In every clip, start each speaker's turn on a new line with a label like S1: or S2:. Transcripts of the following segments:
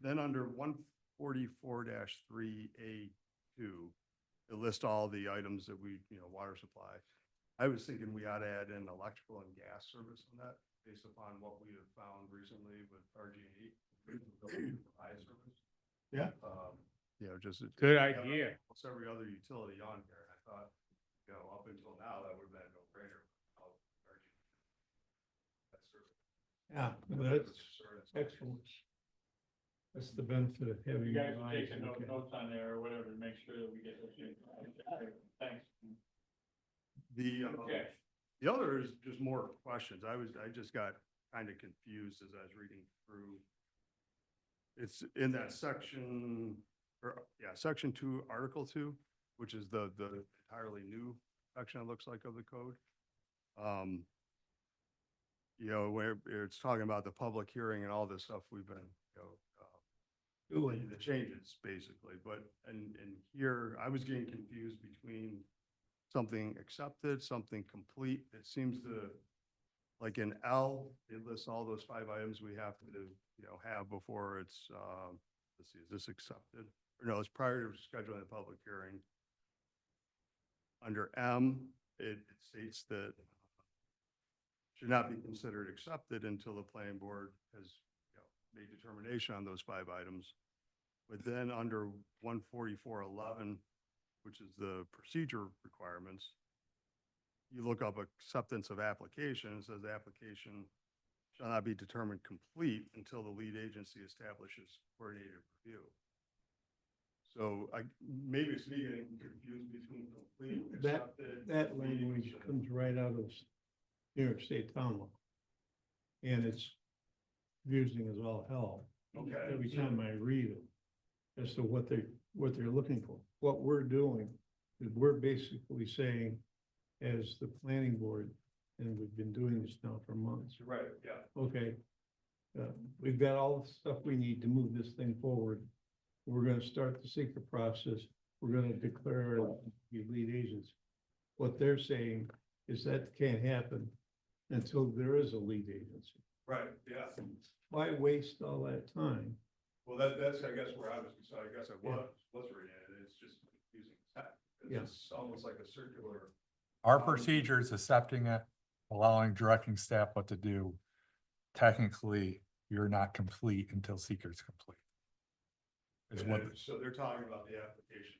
S1: then under one forty-four three A two, it lists all the items that we, you know, water supply. I was thinking we ought to add in electrical and gas service on that, based upon what we have found recently with RGE. Eye service.
S2: Yeah.
S1: Um, you know, just.
S3: Good
S1: Yeah, but
S3: idea.
S1: Almost every other utility on here, and I thought, you know, up until now, that would have been a no-brainer. Oh, RGE. That service.
S2: Yeah, that's
S1: Service.
S2: excellent. That's the benefit of having.
S4: You guys
S2: your
S4: are
S2: eyes
S4: taking no-
S2: looking.
S4: notes on there or whatever, to make sure that we get this. in. Thanks.
S1: The, um,
S4: Okay.
S1: the other is just more questions. I was, I just got kind of confused as I was reading through. It's in that section, or, yeah, section two, article two, which is the, the entirely new section, it looks like, of the code. Um, you know, where it's talking about the public hearing and all this stuff we've been, you know, uh, doing the changes, basically, but, and, and here, I was getting confused between something accepted, something complete, it seems to, like in L, it lists all those five items we have to, you know, have before it's, um, let's see, is this accepted? Or no, it's prior to scheduling a public hearing. Under M, it states that should not be considered accepted until the planning board has you know, made determination on those five items. But then under one forty-four eleven, which is the procedure requirements, you look up acceptance of application, it says the application shall not be determined complete until the lead agency establishes coordinated review. So I, maybe it's me getting confused between complete,
S2: That,
S1: accepted.
S2: that
S1: lead
S2: language
S1: agency.
S2: comes right out of New York State town law. And it's confusing as all hell.
S1: Okay.
S2: Every time I read it, as to what they, what they're looking for. What we're doing is we're basically saying, as the planning board, and we've been doing this now for months,
S1: Right, yeah.
S2: okay, uh, we've got all the stuff we need to move this thing forward. We're gonna start the secret process, we're gonna declare the lead agents. What they're saying is that can't happen until there is a lead agency.
S1: Right, yeah.
S2: Why waste all that time?
S1: Well, that, that's, I guess, where I was, so I guess I
S2: Yeah.
S1: was, was reading it, it's just confusing.
S2: Yeah.
S1: It's almost like a circular,
S5: Our procedure is accepting it, allowing, directing staff what to do. Technically, you're not complete until seeker's complete. Is what,
S1: and so they're talking about the application,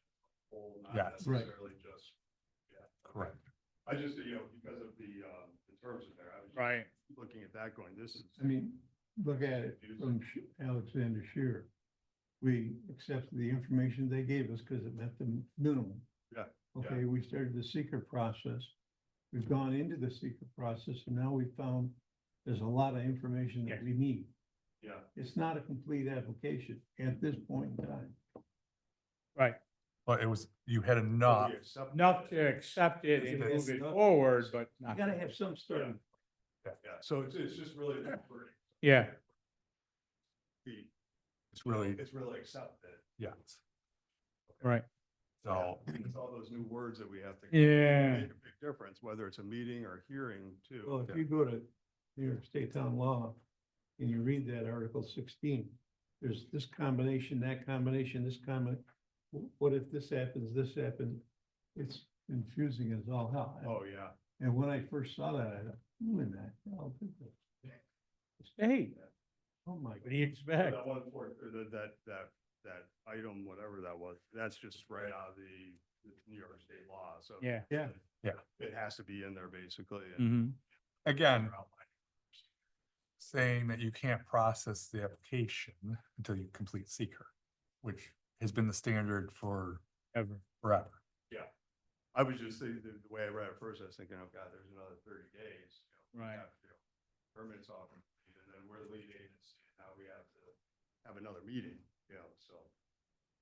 S1: whole, not
S5: Yes.
S2: Right.
S1: necessarily just. yeah.
S5: correct.
S1: I just, you know, because of the, um, the terms in there, I was
S3: Right.
S1: just looking at that going, this is.
S2: I mean, look at it from Sh- Alexander Shearer. We accepted the information they gave us because it met the minimum.
S1: Yeah, yeah.
S2: Okay, we started the secret process. We've gone into the secret process and now we found there's a lot of information that
S3: Yes.
S2: we need.
S1: Yeah,
S2: It's not a complete application at this point in time.
S3: Right.
S5: But it was, you had
S1: so
S5: enough.
S1: we accept
S3: Enough
S1: it.
S3: to accept it and
S2: It's-
S3: move it
S2: it's-
S3: forward, but
S2: You
S3: not.
S2: gotta have some sort of,
S1: Yeah, so it's, it's just really, the wording.
S3: Yeah,
S1: The-
S5: It's really,
S1: it's really accepted.
S5: yes.
S3: right.
S5: So
S1: Yeah, It's all those new words that we have to.
S3: Yeah.
S1: Make a big difference, whether it's a meeting or a hearing too.
S2: well, if you go to New York State Town Law and you read that Article sixteen, there's this combination, that combination, this combination. What if this happens, this happens? It's confusing as all hell.
S1: Oh, yeah.
S2: And when I first saw that, I thought, who in that? hell did this?
S3: Hey,
S2: Oh, my.
S3: what do you expect?
S1: That one for, or that, that, that, that item, whatever that was, that's just right out of the, the New York state law, so.
S3: Yeah.
S2: Yeah.
S5: Yeah.
S1: It has to be in there basically. and-
S3: Mm-hmm.
S5: again, saying that you can't process the application until you complete seeker, which has been the standard for
S3: Ever.
S5: forever.
S1: I was just thinking, the the way I read it first, I was thinking, oh God, there's another thirty days. you know, we
S3: Right.
S1: have to, you know, Permits off, and then we're the lead agency, and now we have to have another meeting, you know, so.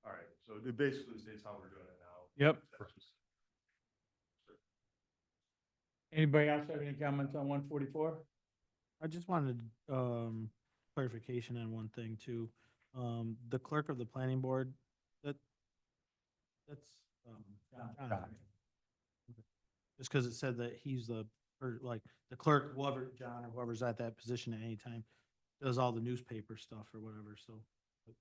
S1: All right, so it basically states how we're doing it now.
S3: Yep.
S1: That's just-
S3: Anybody else have any comments on one forty-four?
S6: I just wanted um clarification on one thing too. Um, the clerk of the planning board, that, that's um. John,
S5: John.
S6: okay. Just because it said that he's the, or like the clerk, whoever, John or whoever's at that position at any time, does all the newspaper stuff or whatever, so